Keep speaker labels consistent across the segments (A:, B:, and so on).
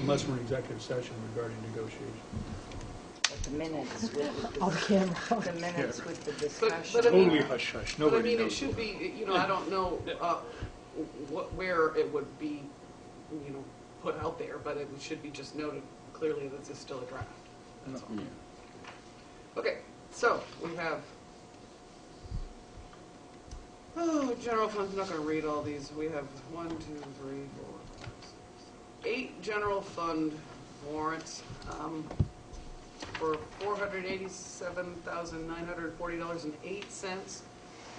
A: unless we're in executive session regarding negotiation.
B: But the minutes with the,
C: Off camera.
B: dis- the minutes with the
D: but I
B: discussion.
D: mean-
A: Totally hush hush,
D: But I
A: nobody
D: mean, it
A: knows.
D: should be, you know, I don't know, uh, what, where it would be, you know, put out there, but it should be just noted clearly that this is still a draft. That's all. Okay, so we have, oh, general funds, I'm not gonna read all these. We have one, two, three, four, five, six, seven, eight general fund warrants, um, for four hundred eighty-seven thousand nine hundred forty dollars and eight cents.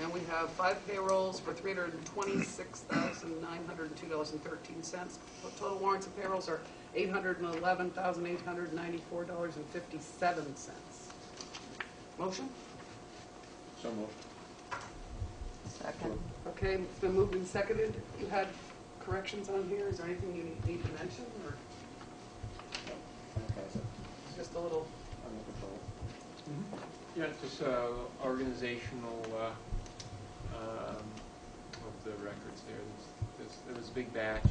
D: And we have five payrolls for three hundred and twenty-six thousand nine hundred and two dollars and thirteen cents. Total warrants and payrolls are eight hundred and eleven thousand eight hundred ninety-four dollars and fifty-seven cents. Motion?
E: So moved.
B: Second,
D: Okay, it's been moved and seconded. You had corrections on here. Is there anything you need- need to mention or
E: Okay, so
D: it's just a little?
E: under control.
F: Yeah, it's just uh, organizational uh, um, of the records there. There's- there's- There was a big batch,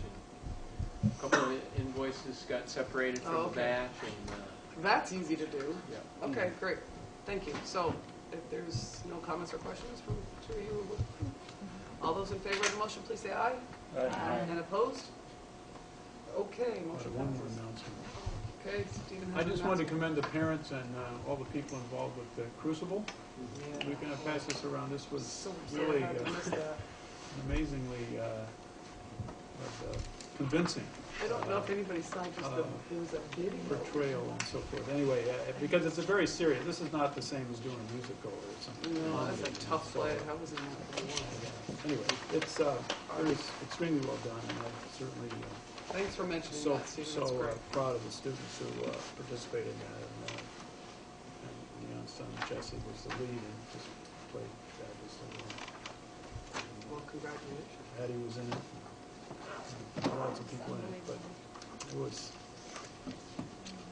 F: and a couple of invoices got separated
D: Oh,
F: from the
D: okay.
F: batch, and, uh,
D: That's easy to do.
F: yeah.
D: Okay, great. Thank you. So if there's no comments or questions from two of you, all those in favor of the motion, please say aye. And opposed? Okay,
A: Uh,
D: motion
A: One more
D: passes.
A: announcement.
D: Okay, Stephen has
A: I just wanted to
D: an
A: commend the parents and uh, all the people involved with the Crucible.
D: announcement.
A: We're gonna pass this around, this
D: Yeah.
A: was
D: So
A: really,
D: sorry to
A: uh,
D: miss that.
A: amazingly uh, was, uh, convincing
D: I don't know if anybody signed just the,
A: Uh,
D: it was a video.
A: portrayal and so forth. Anyway, uh, because it's a very serious, this is not the same as doing a musical or something.
D: No, that's a tough
A: So,
D: play. How was it not the
A: uh,
D: one?
A: Anyway, it's, uh, it was extremely well done, and I'm certainly uh,
D: Thanks for mentioning
A: so,
D: that, Stephen.
A: so
D: That's
A: uh,
D: great.
A: proud of the students who uh, participated in that. And, uh, and, you know, son Jesse was the lead and just played fabulously. well.
D: Well, congratulations.
A: And Patty was in it. and Lots of people in it, but it was,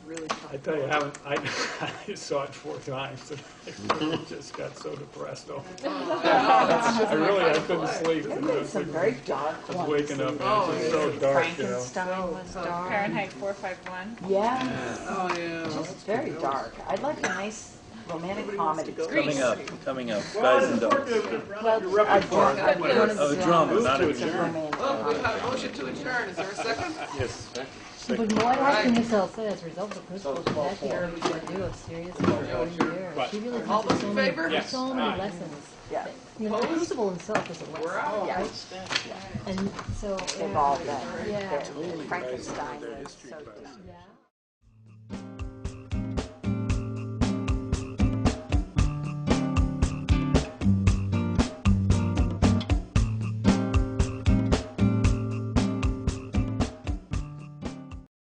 D: Really tough.
A: I tell you, I haven't, I, I saw it four times and I really just got so depressed. over it. I really, I couldn't sleep.
B: They
A: and I
B: made
A: was
B: some
A: like,
B: very dark
A: I
B: ones.
A: was waking up and it
D: Oh,
A: was just so dark, you know.
B: Frankenstein was dark.
G: Fahrenheit 451.
B: Yeah,
D: Oh, yeah.
B: it's very dark. I'd like a nice romantic comedy.
G: Grease.
H: Coming up, coming up, guys and dolls.
B: A drama.
D: Good.
B: One of
H: Of
B: the
H: a drama,
B: dramas.
H: not a
B: It's a
H: drama.
B: romantic
D: Well,
B: comedy.
D: we've got a motion to adjourn. Is there a second?
H: Yes.
C: But more often this also as a result of the principal's last year, we got to do a serious reporting year. She really
D: All
C: taught
D: those
C: us
D: in
C: so many,
D: favor?
C: there's so many lessons.
B: Yeah.
C: You know, the principal himself is a
D: We're
C: lesson,
D: out.
B: Yeah,
C: and so.
B: they've all been.
C: Yeah.
B: Frankenstein was so
C: Yeah.